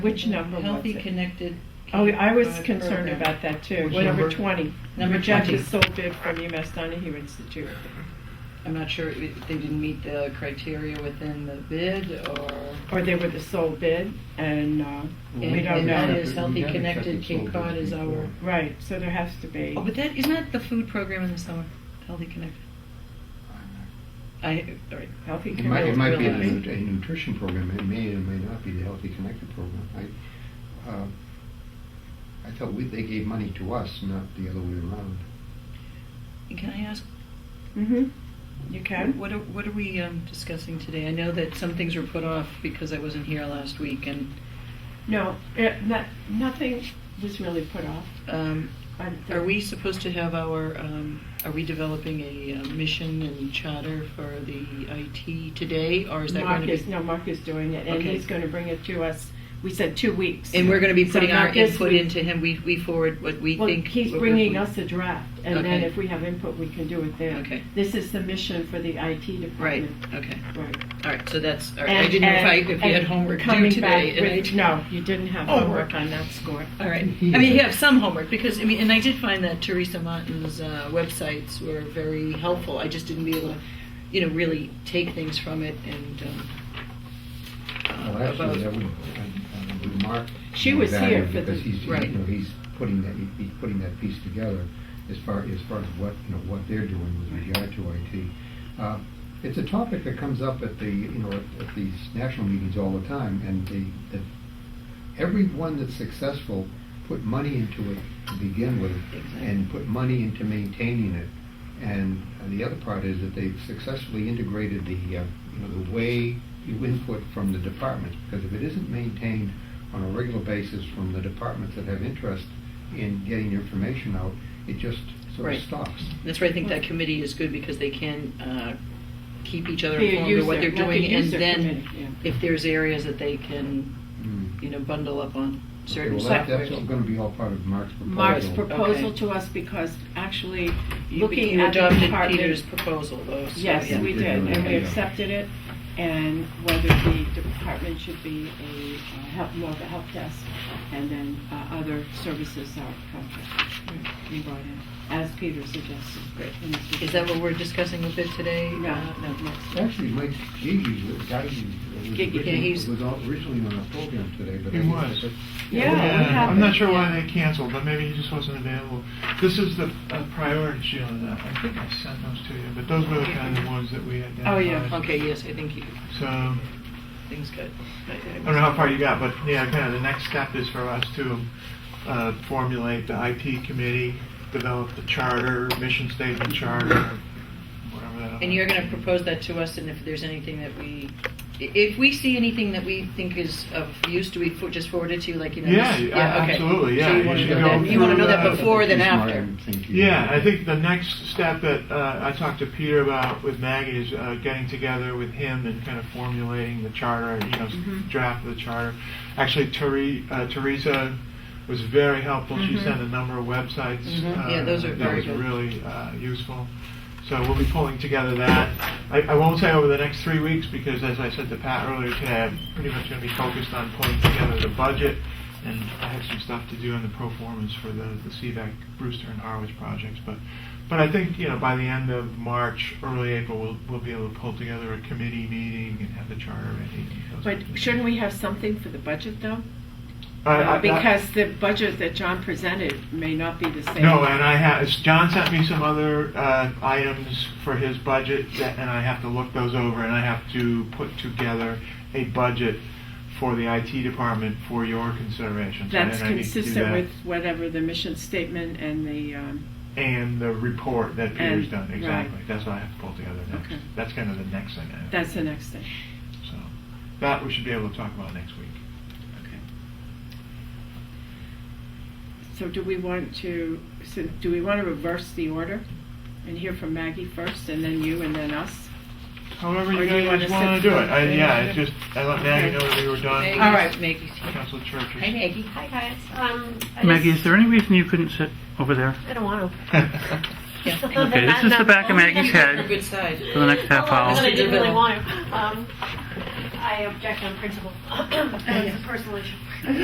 Which number was Healthy, it? connected. Oh, I was uh, concerned program. about that too. Which What number number? twenty? Number Rejected 20. sole bid from UMass Donahue Institute. I'm not sure if they didn't meet the criteria within the bid or. Or they were the sole bid and, uh, Well, we don't And know. that haven't- is Healthy, we haven't Connected, accepted Cape soldiers Cod is our. before. right, so there has to be. Oh, but that, isn't that the food program in the summer? Healthy, Connected? I, all right. Healthy It might, it community. might be a Really? nu- a nutrition program, it may or may not be the Healthy Connected program. I, uh, I thought we, they gave money to us, not the other way around. And Can I ask, hmm You can? what are, what are we um, discussing today? I know that some things were put off because I wasn't here last week and, No, it, not, nothing was really put off. um, I- Are we supposed to have our, um, are we developing a uh, mission and charter for the IT today, or is that Mark going to is, be? no, Mark is doing it and Okay. he's gonna bring it to us. We said two weeks. And we're going to be So putting our not this input week. into him, we, we forward what we Well, think. he's what we're- bringing us a draft, and then Okay. if we have input, we can do it then. Okay. This is the mission for the IT Right, department. okay, Right. all right, so that's, all right, I And- didn't know if I, and- if you had and homework due coming today. back and I with- didn't- No, you didn't have Oh. homework on that score. All right. I mean, you have some homework because I mean, and I did find that Teresa Martin's uh, websites were very helpful. I just didn't be able to, you know, really take things from it and. Um, uh, Well, actually, that about, would, I- I would mark. She was that here for the- Because he's, you Right. know, he's putting that, he's putting that piece together as far, as far as what, you know, what they're doing with regard to IT. Uh, It's a topic that comes up at the, you know, at at these national meetings all the time, and the, the, everyone that's successful put money into it to begin with, Exactly. and put money into maintaining it. And uh, the other part is that they've successfully integrated the, uh, you know, the way you input from the departments, because if it isn't maintained on a regular basis from the departments that have interest in getting information out, it just sort Right. of stops. that's why I think that committee is good because they can uh, keep each other Be a informed of what user, they're like a doing, and user then committee, yeah. if there's areas that they can, Mm. you know, bundle up on Okay, certain well, that- software. that's going to be all part of Mark's proposal. Mark's proposal Oh, Okay. to us, because actually, you, looking you at the adopted Peter's department. proposal, though. So, Yes, yeah. we did, and we Yeah. accepted it, and whether the department should be a, uh, help, more of a help desk, and then uh, other services are contracted, we brought in, as Peter suggested. Great. in his Is that what we're discussing a bit today? No, Uh, no, no. Actually, Mike Gigi, the guy who was Gigi, yeah, originally- he's- was all- originally on our program today, but. He I think- was. but- Yeah, what Yeah, I'm happened? not sure why they canceled, but maybe he just wasn't available. This is the uh, priority, Sheila, that I think I sent those to you, but those were the kind of ones that we identified. Oh, yeah, Okay, yes, I think you, So, I things got. I- I don't know how far you got, but yeah, kind of the next step is for us to uh, formulate the IT committee, develop the charter, mission statement charter, whatever that. And you're going to propose that to us, and if there's anything that we, i- if we see anything that we think is of use, do we fo- just forward it to you, like, you know? Yeah, this- a- okay. absolutely, yeah, So you you want to should know go that, you want to know that through, uh, before than He's smart, after? I think he- Yeah, I think the next step that uh, I talked to Peter about with Maggie is uh, getting together with him and kind of formulating the charter, you know, s- Mm-hmm. Mhm. draft of the charter. Actually, Tere- uh, Teresa was very helpful. Mhm. She sent a number of websites. Mhm. Mm-hmm. Yeah, uh, those are that very was good. really uh, useful. So we'll be pulling together that. I, I won't say over the next three weeks because, as I said to Pat earlier today, I'm pretty much going to be focused on pulling together the budget, and I have some stuff to do in the performance for the the CVAC Brewster and Harwich projects. But, but I think you know by the end of March, early April, we'll we'll be able to pull together a committee meeting and have the charter ready. and those But kinds of shouldn't things. we have something for the budget, though? I- I- Because the budget that John presented may not be the same. No, and I have, John sent me some other uh, items for his budget, that- and I have to look those over, and I have to put together a budget for the IT department for your consideration. So That's then I need to do consistent that. with whatever the mission statement and the, um, And the report that Peter's And- done, right. exactly. That's what I have to pull together Okay. next. That's kind of the next thing I have. that's the next thing. So, that we should be able to talk about next week. Okay. So do we want to, so do we want to reverse the order and hear from Maggie first and then you and then us? However Or you do you wanna guys want sit to do it. I- for- Yeah, it's just, I let Maggie Okay. know that we were done. Maggie's- All right. Maggie's here. Council Church's. Hi, Maggie. Hi guys. Um, I Maggie, just- is there any reason you couldn't sit over there I don't want to. Yeah. Okay, this is the back of Maggie's You're head. Good side. for the next half hour? I didn't Mr. really Deville. want to. Um, I object on principle. That's a personal issue.